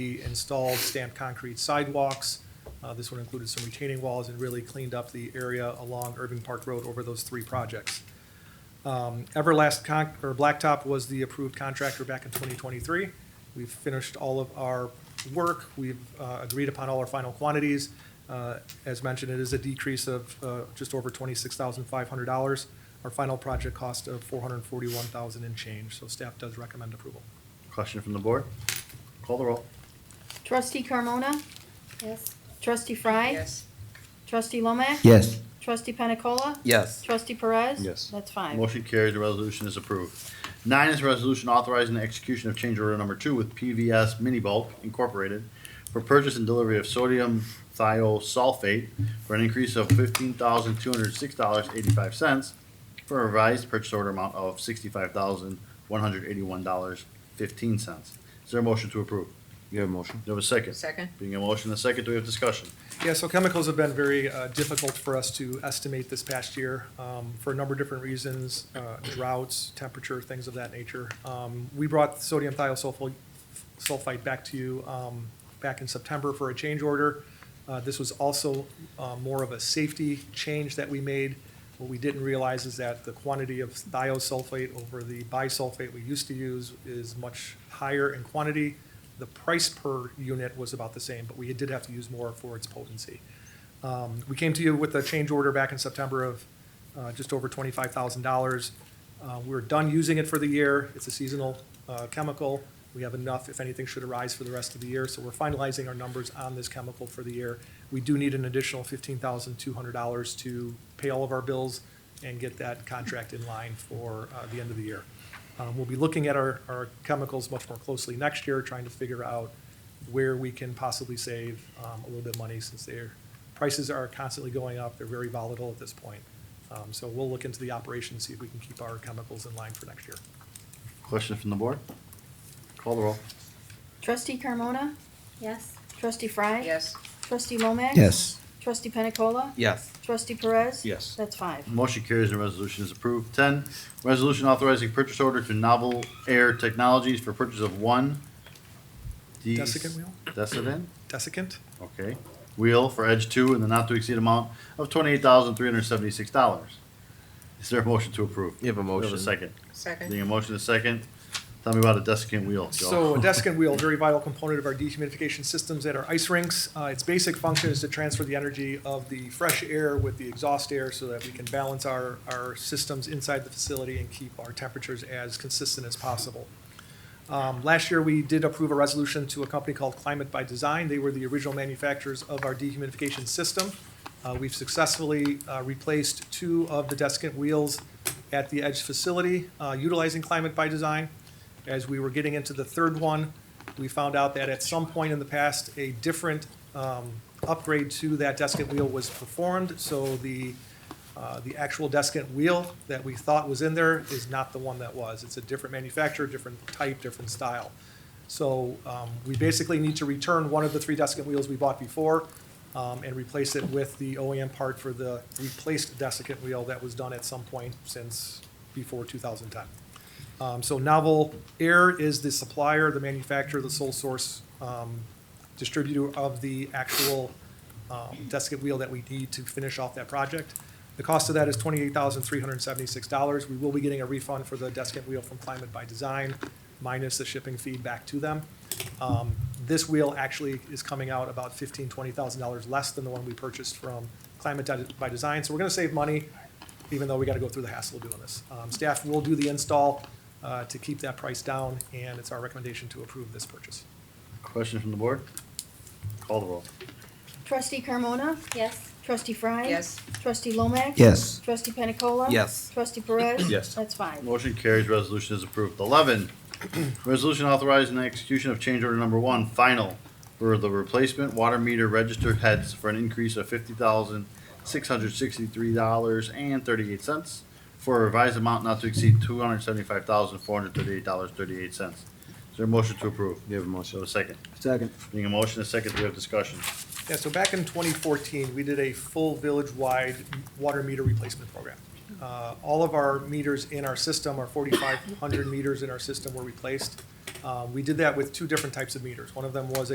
We installed stamped concrete sidewalks. Uh, This one included some retaining walls and really cleaned up the area along Irving Park Road over those three projects. Um, Everlast Con, or Blacktop was the approved contractor back in 2023. We've finished all of our work. We've uh, agreed upon all our final quantities. Uh, As mentioned, it is a decrease of uh, just over $26,500. Our final project cost of $441,000 and change, so staff does recommend approval. Question from the board? Call the roll. Trustee Carmona? Yes. Trustee Fry? Yes. Trustee Lomax? Yes. Trustee Pena Cola? Yes. Trustee Perez? Yes. That's five. Motion carried, the resolution is approved. Nine is a resolution authorizing the execution of change order number two with PVS Mini Bulk Incorporated for purchase and delivery of sodium thiosulfate for an increase of fifteen thousand two hundred six dollars eighty-five cents for a revised purchase order amount of sixty-five thousand one hundred eighty-one dollars fifteen cents. Is there a motion to approve? You have a motion? Do we have a second? Second? Being a motion and a second, do we have discussion? Yeah, so chemicals have been very uh, difficult for us to estimate this past year um, for a number of different reasons, uh, droughts, temperature, things of that nature. Um, We brought sodium thiosulfate sulfite back to you um, back in September for a change order. Uh, This was also uh, more of a safety change that we made. What we didn't realize is that the quantity of thiosulfate over the bisulfate we used to use is much higher in quantity. The price per unit was about the same, but we did have to use more for its potency. Um, We came to you with a change order back in September of uh, just over twenty-five thousand dollars. Uh, We're done using it for the year. It's a seasonal uh, chemical. We have enough, if anything should arise for the rest of the year, so we're finalizing our numbers on this chemical for the year. We do need an additional fifteen thousand two hundred dollars to pay all of our bills and get that contract in line for uh, the end of the year. Um, We'll be looking at our, our chemicals much more closely next year, trying to figure out where we can possibly save um, a little bit of money since their prices are constantly going up. They're very volatile at this point. Um, So we'll look into the operation, see if we can keep our chemicals in line for next year. Question from the board? Call the roll. Trustee Carmona? Yes. Trustee Fry? Yes. Trustee Lomax? Yes. Trustee Pena Cola? Yes. Trustee Perez? Yes. That's five. Motion carries and resolution is approved. Ten, resolution authorizing purchase order to Novel Air Technologies for purchase of one. de- Desiccant wheel? Desiccant? Desiccant? okay. Wheel for Edge Two in the not to exceed amount of twenty-eight thousand three hundred seventy-six dollars. Is there a motion to approve? You have a Do we motion. second. Being Second? a motion is second, tell me about a desiccant wheel, Joe. So a desk and wheel, very vital component of our dehumidification systems at our ice rinks. Uh, Its basic function is to transfer the energy of the fresh air with the exhaust air so that we can balance our, our systems inside the facility and keep our temperatures as consistent as possible. Um, Last year, we did approve a resolution to a company called Climate by Design. They were the original manufacturers of our dehumidification system. Uh, We've successfully uh, replaced two of the desiccant wheels at the Edge facility uh, utilizing Climate by Design. As we were getting into the third one, we found out that at some point in the past, a different um, upgrade to that desiccant wheel was performed. So the uh, the actual desiccant wheel that we thought was in there is not the one that was. It's a different manufacturer, different type, different style. So um, we basically need to return one of the three desiccant wheels we bought before um, and replace it with the OEM part for the replaced desiccant wheel that was done at some point since before 2010. Um, So Novel Air is the supplier, the manufacturer, the sole source um, distributor of the actual um, desiccant wheel that we need to finish off that project. The cost of that is twenty-eight thousand three hundred and seventy-six dollars. We will be getting a refund for the desiccant wheel from Climate by Design, minus the shipping fee back to them. Um, This wheel actually is coming out about fifteen, twenty thousand dollars less than the one we purchased from Climate Di- by Design. So we're gonna save money, even though we gotta go through the hassle of doing this. Um, Staff will do the install uh, to keep that price down, and it's our recommendation to approve this purchase. Question from the board? Call the roll. Trustee Carmona? Yes. Trustee Fry? Yes. Trustee Lomax? Yes. Trustee Pena Cola? Yes. Trustee Perez? Yes. That's five. Motion carries, resolution is approved. Eleven, resolution authorizing the execution of change order number one, final, for the replacement water meter registered heads for an increase of fifty thousand, six hundred sixty-three dollars and thirty-eight cents for a revised amount not to exceed two hundred seventy-five thousand, four hundred thirty-eight dollars, thirty-eight cents. Is there a motion to approve? You have a So motion. a second. Second. Being a motion, a second, we have discussion. Yeah, so back in 2014, we did a full village-wide water meter replacement program. Uh, All of our meters in our system, our Um, 4,500 meters in our system were replaced. Uh, We did that with two different types of meters. One of them was